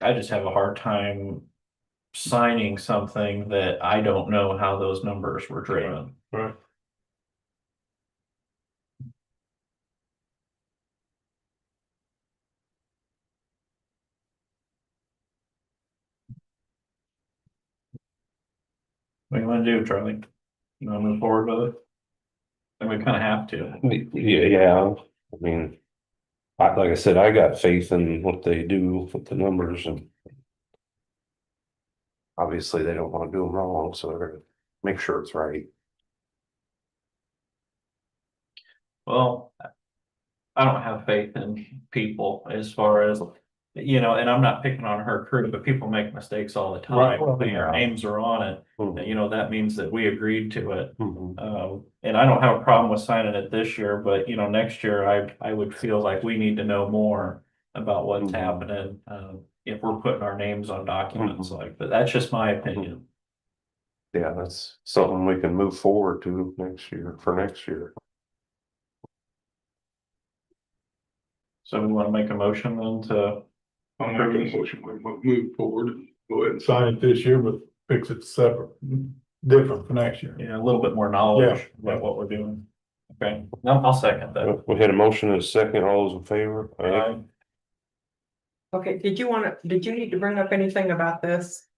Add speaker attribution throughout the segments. Speaker 1: I just have a hard time signing something that I don't know how those numbers were driven.
Speaker 2: Right.
Speaker 1: What do you wanna do, Charlie? You wanna move forward with it? And we kinda have to.
Speaker 2: Y- Yeah, yeah, I mean. I, like I said, I got faith in what they do with the numbers and. Obviously, they don't wanna do them wrong, so they're gonna make sure it's right.
Speaker 1: Well, I don't have faith in people as far as, you know, and I'm not picking on her crew, but people make mistakes all the time.
Speaker 2: Right, well,
Speaker 1: Their
Speaker 2: yeah.
Speaker 1: names are on it, and, you know, that means that we agreed to it.
Speaker 2: Mhm.
Speaker 1: Um, and I don't have a problem with signing it this year, but you know, next year I, I would feel like we need to know more about what's
Speaker 2: Mhm.
Speaker 1: happening, um, if we're putting our names on documents
Speaker 2: Mm-hmm.
Speaker 1: like, but that's just my opinion.
Speaker 2: Yeah, that's something we can move forward to next year, for next year.
Speaker 1: So we want to make a motion then to,
Speaker 3: I'll make a motion, we mo- move forward, and go ahead and sign it this year, but fix it separate, different for next year.
Speaker 1: you know, a little bit more knowledge about what we're doing. Okay, no, I'll second that.
Speaker 2: We had a motion and a second, all those in favor?
Speaker 1: Uh,
Speaker 4: Okay, did you wanna, did you need to bring up anything about this?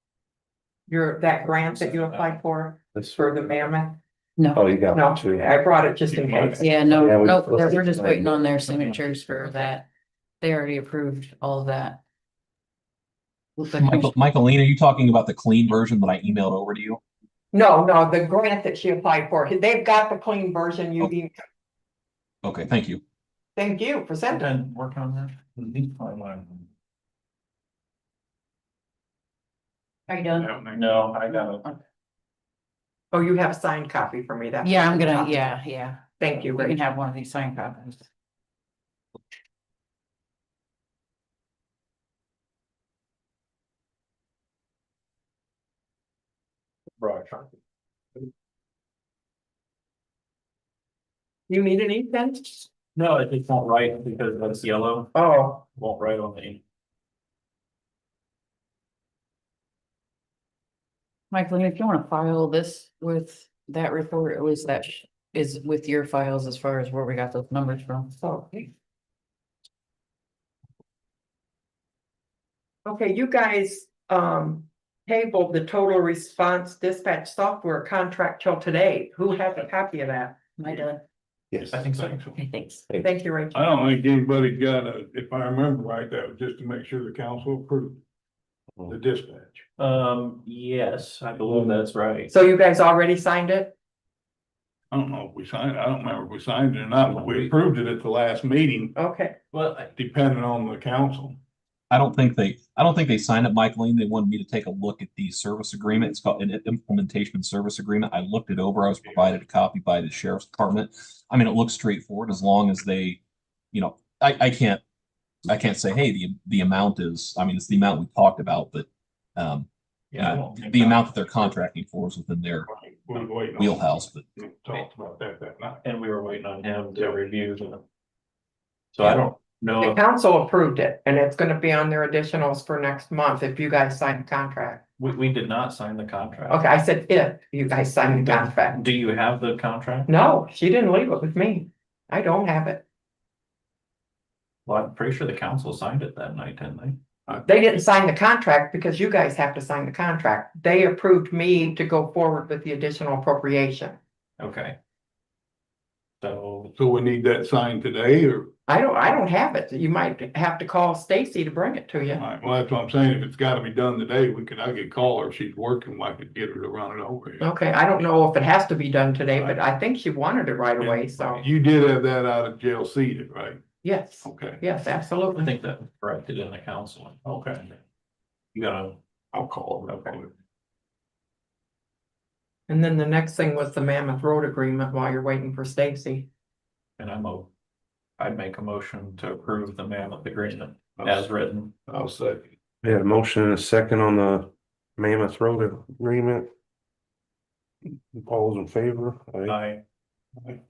Speaker 4: Your, that grant that you applied for,
Speaker 2: That's-
Speaker 4: for the mammoth?
Speaker 2: Oh, you
Speaker 4: No,
Speaker 2: got two.
Speaker 4: I brought it just in case.
Speaker 5: Yeah, no,
Speaker 2: Yeah, we-
Speaker 5: no, that- we're just waiting on their signatures for that. They already approved all of that. With the
Speaker 6: Michael, Michaeline, are you talking about the clean version that I emailed over to you?
Speaker 4: No, no, the grant that she applied for, they've got the clean version you, need.
Speaker 6: Okay, thank you.
Speaker 4: thank you for
Speaker 1: I'm
Speaker 4: sending.
Speaker 1: done working on that.
Speaker 5: Are you done?
Speaker 1: No, I got it.
Speaker 4: Oh, you have a signed copy for me, that.
Speaker 5: Yeah, I'm gonna, yeah, yeah.
Speaker 4: Thank you,
Speaker 5: We can
Speaker 4: Rachel.
Speaker 5: have one of these signed copies.
Speaker 4: You need an ink pen?
Speaker 1: No, it just won't write because that's yellow,
Speaker 4: Oh,
Speaker 1: won't write on the ink.
Speaker 5: Michael, if you wanna file this with that report, at least that sh- is with your files as far as where we got those numbers from.
Speaker 4: so. Okay, you guys, um, tabled the total response dispatch software contract till today. Who has a copy of that?
Speaker 5: Am I done?
Speaker 2: Yes.
Speaker 1: I think so.
Speaker 5: Thanks.
Speaker 4: Thank you, Rachel.
Speaker 3: I don't think anybody's got a, if I remember right, that was just to make sure the council approved the dispatch.
Speaker 1: Um, yes, I believe that's right.
Speaker 4: So you guys already signed it?
Speaker 3: I don't know if we signed, I don't remember if we signed it or not, but we approved it at the last meeting,
Speaker 4: Okay,
Speaker 1: Well, I-
Speaker 3: depending on the council.
Speaker 6: I don't think they, I don't think they signed up, Michaeline. They wanted me to take a look at the service agreement. It's called an implementation and service agreement. I looked it over. I was provided a copy by the sheriff's department. I mean, it looks straightforward as long as they, you know, I, I can't, I can't say, hey, the, the amount is, I mean, it's the amount we talked about, but, um,
Speaker 1: yeah, I
Speaker 6: uh,
Speaker 1: won't-
Speaker 6: the amount that they're contracting for is within their
Speaker 3: We were waiting on-
Speaker 6: wheelhouse, but
Speaker 3: We Talked about that that night.
Speaker 1: And we were waiting on him to review them. So I don't know
Speaker 4: the
Speaker 1: if
Speaker 4: council approved it and it's gonna be on their additionals for next month if you guys sign the contract.
Speaker 1: we, we did not sign the contract.
Speaker 4: Okay, I said if you guys sign the contract.
Speaker 1: Do you have the contract?
Speaker 4: No, she didn't leave it with me. I don't have it.
Speaker 1: Well, I'm pretty sure the council signed it that night, didn't they?
Speaker 4: They didn't sign the contract because you guys have to sign the contract. They approved me to go forward with the additional appropriation.
Speaker 1: Okay. So,
Speaker 3: So we need that signed today or,
Speaker 4: I don't, I don't have it. You might have to call Stacy to bring it to you.
Speaker 3: all right, well, that's what I'm saying. If it's gotta be done today, we could, I could call her. If she's working, I could get her to run it over here.
Speaker 4: Okay, I don't know if it has to be done today, but I think she wanted it right away, so,
Speaker 3: You did have that out of jail seated, right?
Speaker 4: yes,
Speaker 3: Okay,
Speaker 4: yes,
Speaker 1: I
Speaker 4: absolutely.
Speaker 1: think that was corrected in the council.
Speaker 3: Okay.
Speaker 1: You gotta,
Speaker 3: I'll call her.
Speaker 1: Okay.
Speaker 4: And then the next thing was the Mammoth Road Agreement while you're waiting for Stacy.
Speaker 1: and I'm a, I'd make a motion to approve the mammoth agreement as written.
Speaker 3: I'll say.
Speaker 2: We had a motion and a second on the Mammoth Road agreement. All those in favor? Aye.
Speaker 1: I,